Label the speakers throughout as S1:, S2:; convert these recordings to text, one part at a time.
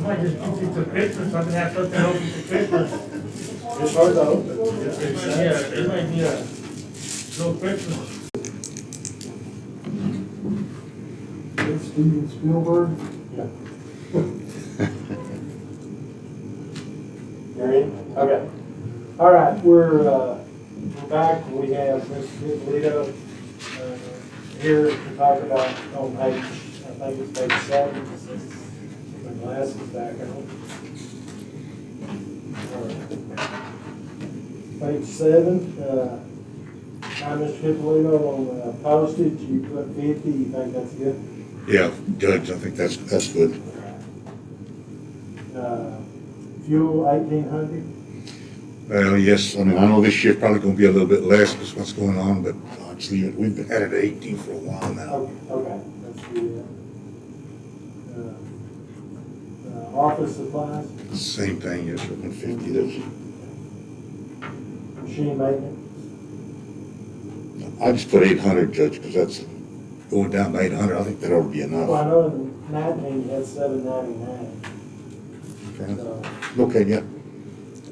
S1: might just keep it to Christmas, so I can have something open to Christmas.
S2: It's hard to open.
S1: Yeah, it might be a little Christmas.
S2: Steven Spielberg. You're in? Okay. All right, we're, uh, we're back. We have Mr. Polito, uh, here to talk about on page, I think it's page seven. My glasses back on. All right. Page seven, uh, hi, Mr. Hippolito, on uh, postage, you put fifty, you think that's good?
S3: Yeah, Judge, I think that's, that's good.
S2: Uh, Fuel eighteen hundred,
S3: Well, yes, I mean, I know this year's probably gonna be a little bit less, because what's going on, but honestly, we've been at it eighteen for a while now.
S2: okay, okay, that's the, uh, uh, office supplies,
S3: Same thing, yes, one fifty, that's,
S2: machine maintenance,
S3: I just put eight hundred, Judge, because that's going down by eight hundred, I think that ought to be
S2: well, I
S3: enough.
S2: know in nineteen, you had seven ninety-nine,
S3: Okay.
S2: so,
S3: Okay, yeah,
S2: uh, all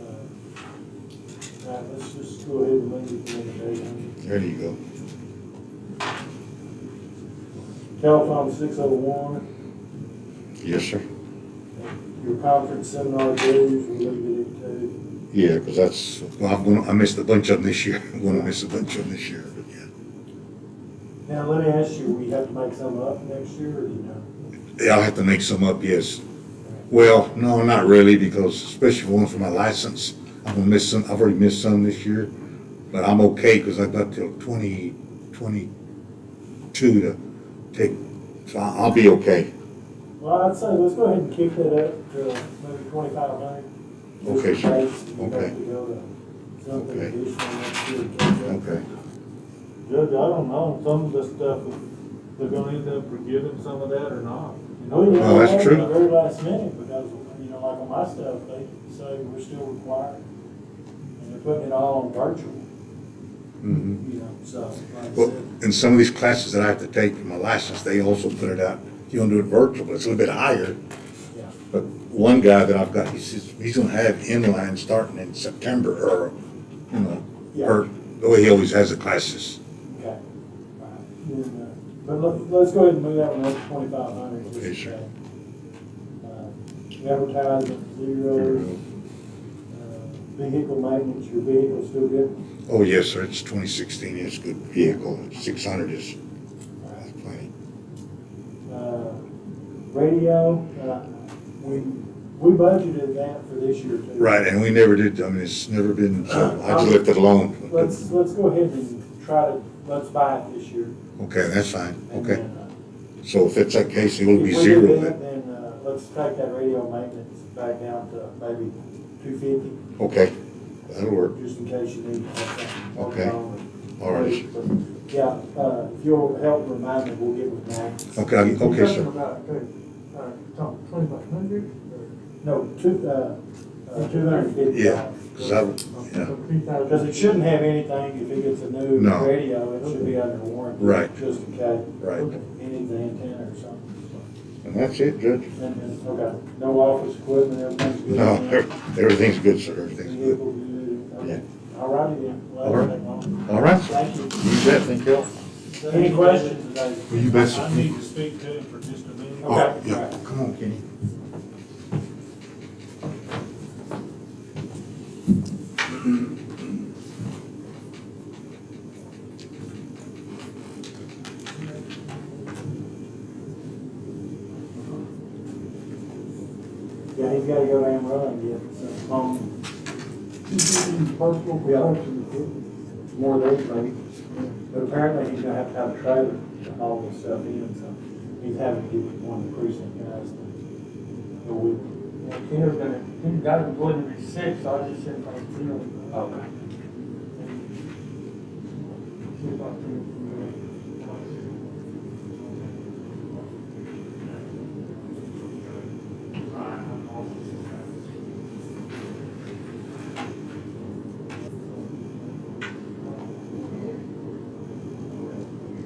S2: right, uh, let's just go ahead and leave it to the eight hundred.
S3: there you go.
S2: Telephone six oh one,
S3: Yes, sir.
S2: your conference seminar dues, we leave it at two.
S3: Yeah, because that's, well, I'm gonna, I missed a bunch of them this year, I'm gonna miss a bunch of them this year, but yeah.
S2: Now, let me ask you, we have to make some up next year, or you know?
S3: Yeah, I'll have to make some up, yes. Well, no, not really, because especially for one for my license, I'm gonna miss some, I've already missed some this year. But I'm okay, because I've got till twenty, twenty-two to take, so I- I'll be okay.
S2: Well, I'd say let's go ahead and kick that up to maybe twenty-five hundred.
S3: Okay, sure. Okay.
S2: Something
S3: Okay.
S2: additional next year. Judge,
S3: Okay.
S4: Judge, I don't know, some of the stuff, they're gonna end up forgiving some of that or not. you know?
S2: We
S3: Well, that's
S2: didn't
S3: true.
S2: know the very last minute because, you know, like on my stuff, they say we're still required. And they're putting it all on virtual,
S3: Mhm.
S2: you know, so, like I
S3: Well,
S2: said.
S3: in some of these classes that I have to take for my license, they also put it out, you don't do it virtual, but it's a little bit higher.
S2: Yeah.
S3: But one guy that I've got, he says, he's gonna have inline starting in September, or, you know, or, the way he always has the classes.
S2: Okay. Then, uh, But let, let's go ahead and move that one up to twenty-five hundred. uh,
S3: Okay, sure.
S2: Advertising, zero, uh, vehicle maintenance, your vehicle's still good?
S3: Oh, yes, sir, it's twenty sixteen, it's a good vehicle, six hundred is that's plenty.
S2: Uh, Radio, uh, we, we budgeted that for this year too.
S3: Right, and we never did, I mean, it's never been, so I just left it alone.
S2: Let's, let's go ahead and try to, let's buy it this year.
S3: Okay, that's fine,
S2: and
S3: okay.
S2: then, uh,
S3: So if it's that case, it will be
S2: If we do
S3: zero
S2: that,
S3: then,
S2: Then, uh, let's take that radio maintenance back down to maybe two fifty.
S3: okay, that'll work,
S2: just in case you need. to have something going
S3: Okay.
S2: on.
S3: all right.
S2: Yeah, uh, if you'll help remind me, we'll get with Max.
S3: Okay, I- okay,
S4: You're talking
S3: sir.
S4: about, uh, uh, Tom, twenty-five hundred?
S2: No, two, uh, two hundred and fifty
S3: Yeah,
S2: dollars.
S3: 'cause I, yeah,
S2: Because it shouldn't have anything, if it gets a new
S3: No.
S2: radio, it should be under warranty.
S3: Right.
S2: Just in case,
S3: right.
S2: any of the antenna or something.
S3: And that's it, Judge?
S2: And then, okay, no office equipment, everything's good.
S3: No, ev- everything's good, sir, everything's good.
S2: Vehicle good, okay. All righty then,
S3: All
S2: well,
S3: right.
S2: take long.
S3: All right, sir.
S2: Thank you.
S3: You bet, thank you.
S2: Any questions today?
S3: You bet, sir.
S4: I need to speak to him for just a minute.
S3: Oh,
S2: Okay.
S3: yeah, come on, Kenny.
S2: Yeah, he's gotta go down and run and get some phone. Personal
S5: protection
S2: More than anything, but apparently he's gonna have to have a trailer to haul this stuff in, so he's having to get one of the precinct guys to go with him.
S1: He was gonna, he got him going to be six, so I just said, like, you know.
S2: Okay.
S1: See about three. uh,